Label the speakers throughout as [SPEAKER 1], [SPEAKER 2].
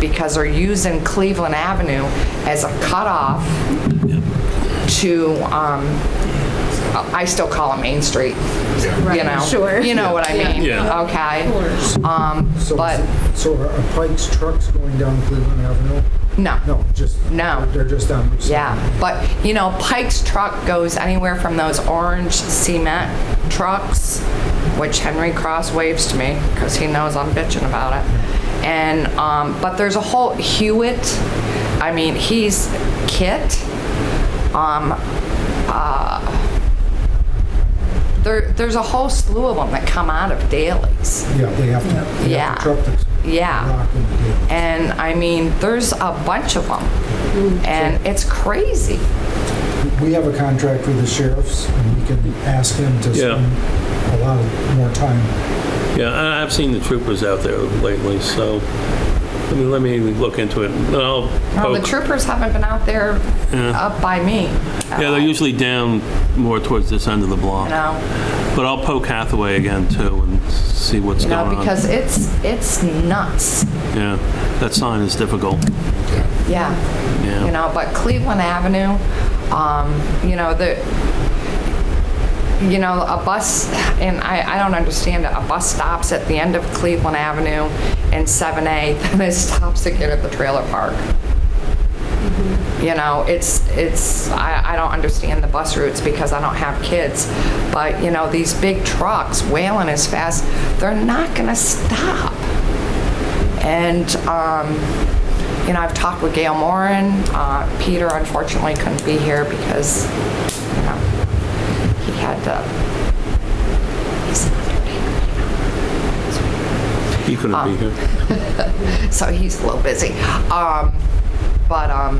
[SPEAKER 1] because they're using Cleveland Avenue as a cutoff to, um, I still call it Main Street, you know?
[SPEAKER 2] sure.
[SPEAKER 1] You know what I mean?
[SPEAKER 3] Yeah.
[SPEAKER 1] Okay? Um,
[SPEAKER 4] So,
[SPEAKER 1] but,
[SPEAKER 4] is- so are are Pike's trucks going down Cleveland Avenue?
[SPEAKER 1] no.
[SPEAKER 4] No, just.
[SPEAKER 1] No.
[SPEAKER 4] They're just down. Route seven.
[SPEAKER 1] Yeah, but you know, Pike's truck goes anywhere from those orange cement trucks, which Henry Cross waves to me because he knows I'm bitching about it. And um, but there's a whole Hewitt. I mean, he's Kit. Um, uh, there, there's a whole slew of them that come out of dailies.
[SPEAKER 4] Yeah, they have to. they
[SPEAKER 1] Yeah.
[SPEAKER 4] have to Truck that's
[SPEAKER 1] Yeah.
[SPEAKER 4] locked in the deal.
[SPEAKER 1] And I mean, there's a bunch of them. And it's crazy.
[SPEAKER 4] We have a contract with the sheriffs, and we can ask them to
[SPEAKER 3] Yeah.
[SPEAKER 4] spend a lot of more time.
[SPEAKER 3] Yeah, I- I've seen the troopers out there lately, so let me, let me look into it. and I'll
[SPEAKER 1] Well, the
[SPEAKER 3] poke-
[SPEAKER 1] troopers haven't been out there up by me.
[SPEAKER 3] Yeah, they're usually down more towards this end of the block.
[SPEAKER 1] You know,
[SPEAKER 3] But I'll poke Hathaway again too and see what's
[SPEAKER 1] you
[SPEAKER 3] going
[SPEAKER 1] know,
[SPEAKER 3] on.
[SPEAKER 1] because it's, it's nuts.
[SPEAKER 3] Yeah, that sign is difficult.
[SPEAKER 1] Yeah.
[SPEAKER 3] Yeah.
[SPEAKER 1] You know, but Cleveland Avenue, um, you know, the, you know, a bus, and I, I don't understand it, a bus stops at the end of Cleveland Avenue and 7A, then it stops again at the trailer park. You know, it's, it's, I, I don't understand the bus routes because I don't have kids, but, you know, these big trucks wailing as fast, they're not gonna stop. And, um, you know, I've talked with Gail Moran. Uh, Peter unfortunately couldn't be here because, you know, he had to, he's an undertaker.
[SPEAKER 3] He couldn't
[SPEAKER 1] uh,
[SPEAKER 3] be here.
[SPEAKER 1] so he's a little busy. Um, but um,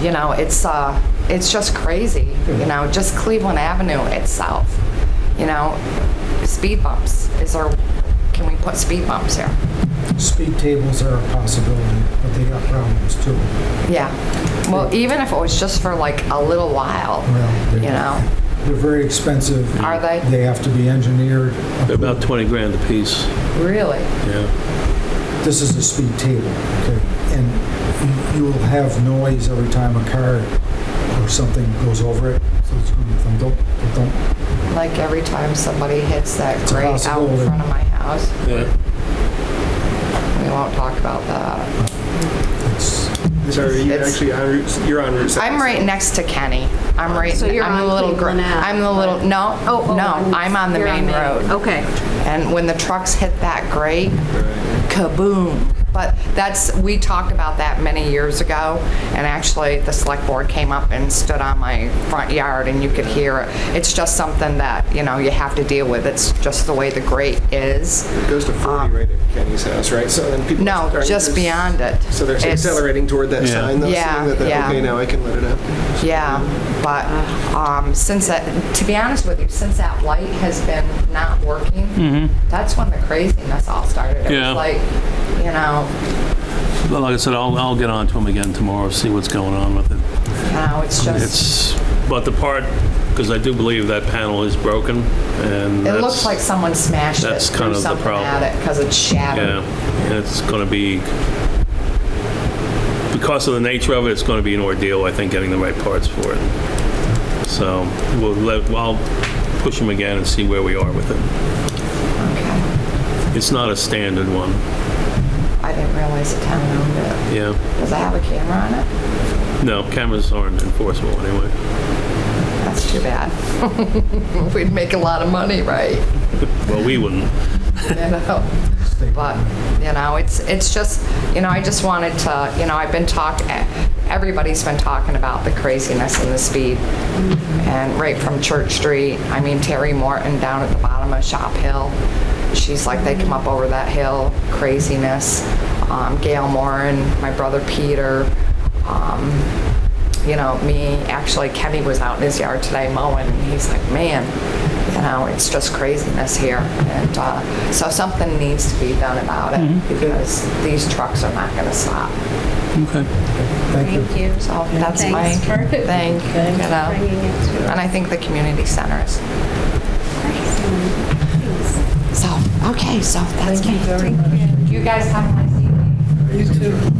[SPEAKER 1] you know, it's uh, it's just crazy. You know, just Cleveland Avenue itself. You know, speed bumps. Is there? Can we put speed bumps here?
[SPEAKER 4] Speed tables are a possibility, but they got problems too.
[SPEAKER 1] Yeah. Well, even if it was just for like a little while,
[SPEAKER 4] Well, they're-
[SPEAKER 1] you know.
[SPEAKER 4] They're very expensive.
[SPEAKER 1] Are they?
[SPEAKER 4] They have to be engineered.
[SPEAKER 3] They're about 20 grand apiece,
[SPEAKER 1] Really?
[SPEAKER 3] yeah.
[SPEAKER 4] This is a speed table, okay? And you will have noise every time a car or something goes over it. So it's going to thump, thump, thump, thump.
[SPEAKER 1] Like every time somebody hits that
[SPEAKER 4] a
[SPEAKER 1] grate out in
[SPEAKER 4] possibility.
[SPEAKER 1] front of my house,
[SPEAKER 3] Yeah.
[SPEAKER 1] we won't talk about that.
[SPEAKER 4] It's-
[SPEAKER 5] Sorry, you're
[SPEAKER 1] It's-
[SPEAKER 5] actually on Route, you're on Route 7.
[SPEAKER 1] I'm right next to Kenny. I'm right.
[SPEAKER 2] So you're
[SPEAKER 1] I'm the
[SPEAKER 2] on
[SPEAKER 1] little gr-
[SPEAKER 2] Cleveland Ave,
[SPEAKER 1] I'm the little. No.
[SPEAKER 2] Oh, oh,
[SPEAKER 1] no. I'm on the
[SPEAKER 2] you're
[SPEAKER 1] main road.
[SPEAKER 2] Okay.
[SPEAKER 1] And when the trucks hit that grate, kaboom. But that's, we talked about that many years ago, and actually, the select board came up and stood on my front yard, and you could hear it. It's just something that, you know, you have to deal with. It's just the way the grate is.
[SPEAKER 5] It goes to 40 right at Kenny's house, right? So then people.
[SPEAKER 1] uh, No,
[SPEAKER 5] are-
[SPEAKER 1] just beyond it.
[SPEAKER 5] So they're
[SPEAKER 1] It's-
[SPEAKER 5] accelerating toward that
[SPEAKER 3] Yeah.
[SPEAKER 5] sign, though,
[SPEAKER 1] Yeah,
[SPEAKER 5] saying that,
[SPEAKER 1] yeah.
[SPEAKER 5] that, okay, now I can let it out.
[SPEAKER 1] Yeah, but um, since that, to be honest with you, since that light has been not working, that's when the craziness all started. It
[SPEAKER 3] Mm-hmm. Yeah.
[SPEAKER 1] was like, you know,
[SPEAKER 3] But like I said, I'll, I'll get on to him again tomorrow, see what's going on with it.
[SPEAKER 1] you know, it's just.
[SPEAKER 3] It's, but the part, because I do believe that panel is broken, and
[SPEAKER 1] It
[SPEAKER 3] that's-
[SPEAKER 1] looks like someone smashed it
[SPEAKER 3] that's
[SPEAKER 1] through
[SPEAKER 3] kind of the
[SPEAKER 1] something
[SPEAKER 3] problem.
[SPEAKER 1] at it because it's
[SPEAKER 3] Yeah,
[SPEAKER 1] shattered.
[SPEAKER 3] and uh, it's going to be, because of the nature of it, it's going to be an ordeal, I think, getting the right parts for it. So we'll let, I'll push him again and see where we are with it.
[SPEAKER 1] Okay.
[SPEAKER 3] It's not a standard one,
[SPEAKER 1] I didn't realize the town owned it.
[SPEAKER 3] yeah.
[SPEAKER 1] Does it have a camera on it?
[SPEAKER 3] No, cameras aren't enforceable anyway.
[SPEAKER 1] That's too bad. We'd make a lot of money, right?
[SPEAKER 3] Well, we wouldn't.
[SPEAKER 1] You know? But, you know, it's, it's just, you know, I just wanted to, you know, I've been talk, eh, everybody's been talking about the craziness and the speed. And right from Church Street, I mean Terry Morton down at the bottom of Shop Hill, she's like, they come up over that hill, craziness. Um, Gail Moran, my brother Peter, um, you know, me, actually Kenny was out in his yard today mowing, and he's like, man, you know, it's just craziness here. And uh, so something needs to be done about it
[SPEAKER 6] Mm-hmm.
[SPEAKER 1] because these trucks are not going to stop.
[SPEAKER 3] Okay.
[SPEAKER 4] Thank you.
[SPEAKER 6] Thank you.
[SPEAKER 1] So that's my
[SPEAKER 6] Thanks for
[SPEAKER 1] thing, you know.
[SPEAKER 6] bringing it to
[SPEAKER 1] And I think the community center is. So, okay, so that's me. You guys have a nice evening.
[SPEAKER 2] You too.